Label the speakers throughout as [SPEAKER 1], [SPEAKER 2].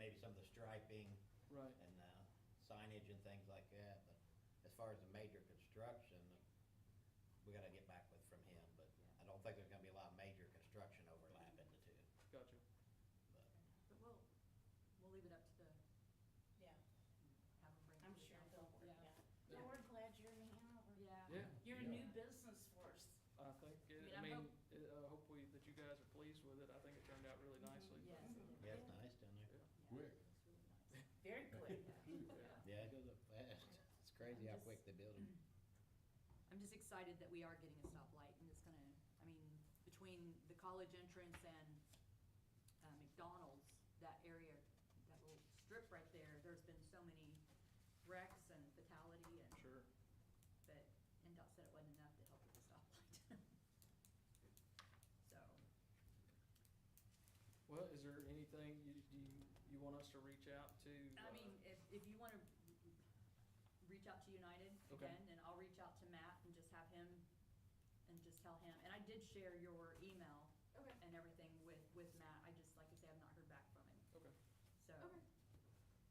[SPEAKER 1] maybe some of the striping
[SPEAKER 2] Right.
[SPEAKER 1] and uh, signage and things like that, but as far as the major construction, we gotta get back with from him, but I don't think there's gonna be a lot of major construction overlap in the two,
[SPEAKER 2] Gotcha.
[SPEAKER 1] but.
[SPEAKER 3] But we'll, we'll leave it up to the,
[SPEAKER 4] Yeah,
[SPEAKER 3] have them bring. it
[SPEAKER 4] I'm
[SPEAKER 3] to the
[SPEAKER 4] sure
[SPEAKER 3] council.
[SPEAKER 4] they'll work
[SPEAKER 3] Yeah.
[SPEAKER 4] it out. Well, we're glad you're in Hanover.
[SPEAKER 3] Yeah.
[SPEAKER 2] Yeah.
[SPEAKER 4] You're a new business for us.
[SPEAKER 2] I think, it- I
[SPEAKER 3] I mean, I'm
[SPEAKER 2] mean, it- uh, hopefully that you guys are pleased with it. I think it turned out really
[SPEAKER 3] Mm-hmm,
[SPEAKER 2] nicely. but-
[SPEAKER 3] Yes.
[SPEAKER 1] Yeah, it's nice down there.
[SPEAKER 2] Yeah.
[SPEAKER 3] Yeah,
[SPEAKER 5] Quick.
[SPEAKER 3] it's really nice.
[SPEAKER 4] Very quick.
[SPEAKER 3] Yeah.
[SPEAKER 1] Yeah, it goes up fast. It's crazy how quick they build them.
[SPEAKER 3] I'm just excited that we are getting a stoplight and it's gonna, I mean, between the college entrance and uh, McDonald's, that area, that little strip right there, there's been so many wrecks and fatality and.
[SPEAKER 2] Sure.
[SPEAKER 3] But NDOT said it wasn't enough to help with the stoplight. So,
[SPEAKER 2] Well, is there anything you, do you, you want us to reach out to?
[SPEAKER 3] I
[SPEAKER 2] uh,
[SPEAKER 3] mean, if, if you wanna reach out to United
[SPEAKER 2] Okay.
[SPEAKER 3] again, and I'll reach out to Matt and just have him, and just tell him, and I did share your email
[SPEAKER 4] Okay.
[SPEAKER 3] and everything with, with Matt, I just, like I say, I've not heard back from him,
[SPEAKER 2] Okay,
[SPEAKER 3] so.
[SPEAKER 6] Okay.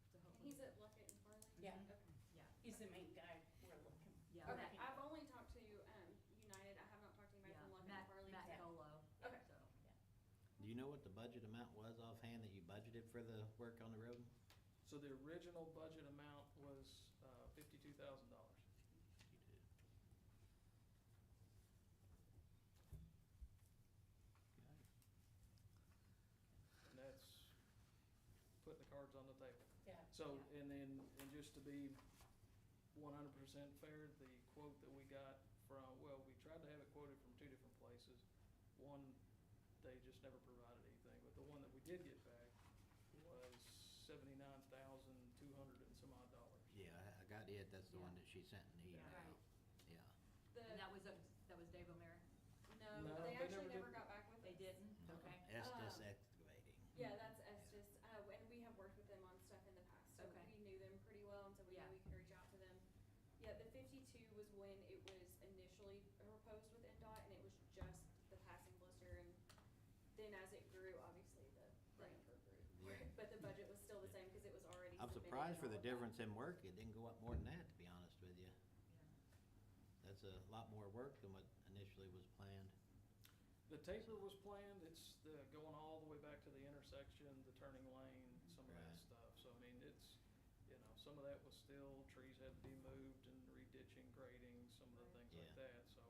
[SPEAKER 3] So
[SPEAKER 6] And
[SPEAKER 3] hopefully.
[SPEAKER 6] he's at Luckett and Farley?
[SPEAKER 4] Yeah.
[SPEAKER 6] Okay.
[SPEAKER 3] Yeah,
[SPEAKER 4] He's the main guy we're looking.
[SPEAKER 3] yeah,
[SPEAKER 6] Okay,
[SPEAKER 3] Matt,
[SPEAKER 6] I've only talked to, um, United, I have not talked to anybody
[SPEAKER 3] yeah,
[SPEAKER 6] from Luckett and
[SPEAKER 3] Matt,
[SPEAKER 6] Farley.
[SPEAKER 3] Matt
[SPEAKER 4] yeah.
[SPEAKER 3] Colo,
[SPEAKER 6] Okay.
[SPEAKER 3] so,
[SPEAKER 1] Do you know what the budget amount was offhand that you budgeted for the work on the road?
[SPEAKER 2] so the original budget amount was, uh, fifty-two thousand dollars. And that's putting the cards on the table.
[SPEAKER 4] Yeah.
[SPEAKER 2] So, and then, and just to be one hundred percent fair, the quote that we got from, well, we tried to have it quoted from two different places. One, they just never provided anything, but the one that we did get back was seventy-nine thousand, two hundred and some odd dollars.
[SPEAKER 1] Yeah, I- I got it. That's the one
[SPEAKER 3] Yeah.
[SPEAKER 1] that she sent in the email.
[SPEAKER 3] Right.
[SPEAKER 1] Yeah.
[SPEAKER 3] and that
[SPEAKER 6] The,
[SPEAKER 3] was, that was Dave O'Meara,
[SPEAKER 2] No,
[SPEAKER 6] no, they
[SPEAKER 2] they never did.
[SPEAKER 6] actually never got back with us.
[SPEAKER 3] they didn't, okay?
[SPEAKER 1] Estes
[SPEAKER 6] Um,
[SPEAKER 1] excavating.
[SPEAKER 6] Yeah, that's Estes, uh, and we have worked with them on stuff in the past, so
[SPEAKER 3] Okay.
[SPEAKER 6] we knew them pretty well, and so we
[SPEAKER 3] Yeah.
[SPEAKER 6] knew we could reach out to them. Yeah, the fifty-two was when it was initially proposed with NDOT, and it was just the passing blister, and then as it grew, obviously the grant grew.
[SPEAKER 1] Yeah.
[SPEAKER 6] But the budget was still the same, because it was already
[SPEAKER 1] I'm
[SPEAKER 6] submitted
[SPEAKER 1] surprised
[SPEAKER 6] and
[SPEAKER 1] for the
[SPEAKER 6] all of that.
[SPEAKER 1] difference in work. It didn't go up more than that, to be honest with you.
[SPEAKER 3] Yeah.
[SPEAKER 1] That's a lot more work than what initially was planned.
[SPEAKER 2] The taper was planned, it's the, going all the way back to the intersection, the turning lane, some of
[SPEAKER 1] Right.
[SPEAKER 2] that stuff, so I mean, it's, you know, some of that was still, trees had to be moved and re-ditching, grading, some of the things
[SPEAKER 1] Yeah.
[SPEAKER 2] like that, so,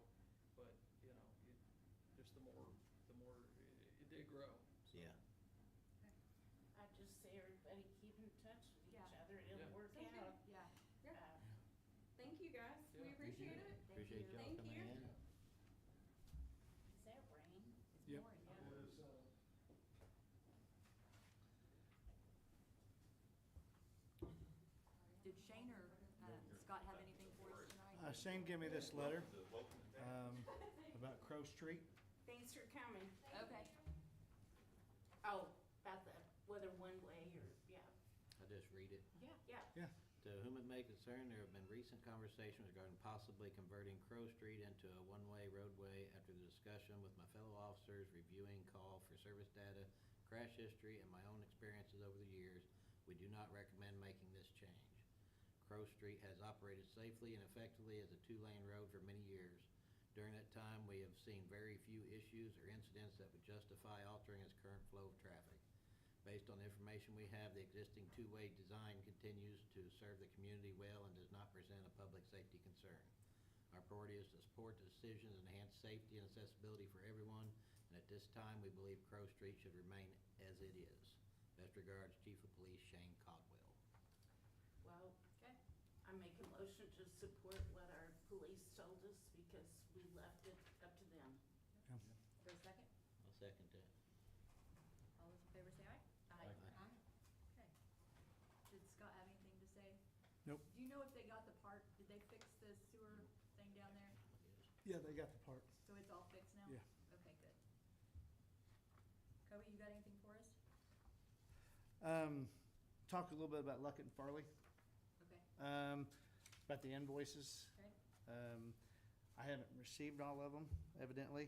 [SPEAKER 2] but, you know, it, just the more, the more, it, it did grow. so.
[SPEAKER 1] Yeah.
[SPEAKER 4] I just say everybody keep in touch with each
[SPEAKER 3] Yeah.
[SPEAKER 4] other. It'll
[SPEAKER 2] Yeah.
[SPEAKER 4] work
[SPEAKER 6] Sounds good.
[SPEAKER 4] out.
[SPEAKER 3] Yeah.
[SPEAKER 6] Yeah,
[SPEAKER 4] Uh,
[SPEAKER 6] thank you guys,
[SPEAKER 2] Yeah.
[SPEAKER 6] we appreciate it.
[SPEAKER 1] Appreciate y'all
[SPEAKER 6] Thank
[SPEAKER 1] coming
[SPEAKER 6] you.
[SPEAKER 1] in.
[SPEAKER 4] Is that rain?
[SPEAKER 3] It's
[SPEAKER 2] Yep.
[SPEAKER 3] boring, yeah.
[SPEAKER 2] uh,
[SPEAKER 3] Did Shane or uh, Scott have anything for us tonight?
[SPEAKER 7] Uh, Shane gave me this letter um, about Crow Street.
[SPEAKER 4] Thanks for coming.
[SPEAKER 3] Okay,
[SPEAKER 4] Oh, about the whether one way or, yeah,
[SPEAKER 1] I'll just read it.
[SPEAKER 3] yeah.
[SPEAKER 4] yeah.
[SPEAKER 1] To
[SPEAKER 7] Yeah,
[SPEAKER 1] whom it may concern, there have been recent conversations regarding possibly converting Crow Street into a one-way roadway after the discussion with my fellow officers reviewing call for service data, crash history, and my own experiences over the years. We do not recommend making this change. Crow Street has operated safely and effectively as a two-lane road for many years. During that time, we have seen very few issues or incidents that would justify altering its current flow of traffic. Based on the information we have, the existing two-way design continues to serve the community well and does not present a public safety concern. Our priority is to support the decisions and enhance safety and accessibility for everyone, and at this time, we believe Crow Street should remain as it is. Best regards, Chief of Police Shane Codwell.
[SPEAKER 4] Well,
[SPEAKER 3] Okay,
[SPEAKER 4] I make a motion to support what our police told us because we left it up to them.
[SPEAKER 7] yeah.
[SPEAKER 3] for a second,
[SPEAKER 1] I'll second that.
[SPEAKER 3] all those in favor say aye?
[SPEAKER 1] Aye. Aye.
[SPEAKER 3] Okay. Did Scott have anything to say?
[SPEAKER 7] Nope.
[SPEAKER 3] Do you know if they got the part, did they fix the sewer thing down there?
[SPEAKER 7] Yeah, they got the part.
[SPEAKER 3] So it's all fixed now?
[SPEAKER 7] Yeah.
[SPEAKER 3] Okay, good. Kobe, you got anything for us?
[SPEAKER 7] Um, talk a little bit about Luckett and Farley,
[SPEAKER 3] Okay,
[SPEAKER 7] um, about the invoices.
[SPEAKER 3] okay,
[SPEAKER 7] Um, I haven't received all of them evidently.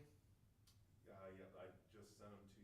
[SPEAKER 8] Yeah, yeah, Uh, I just sent them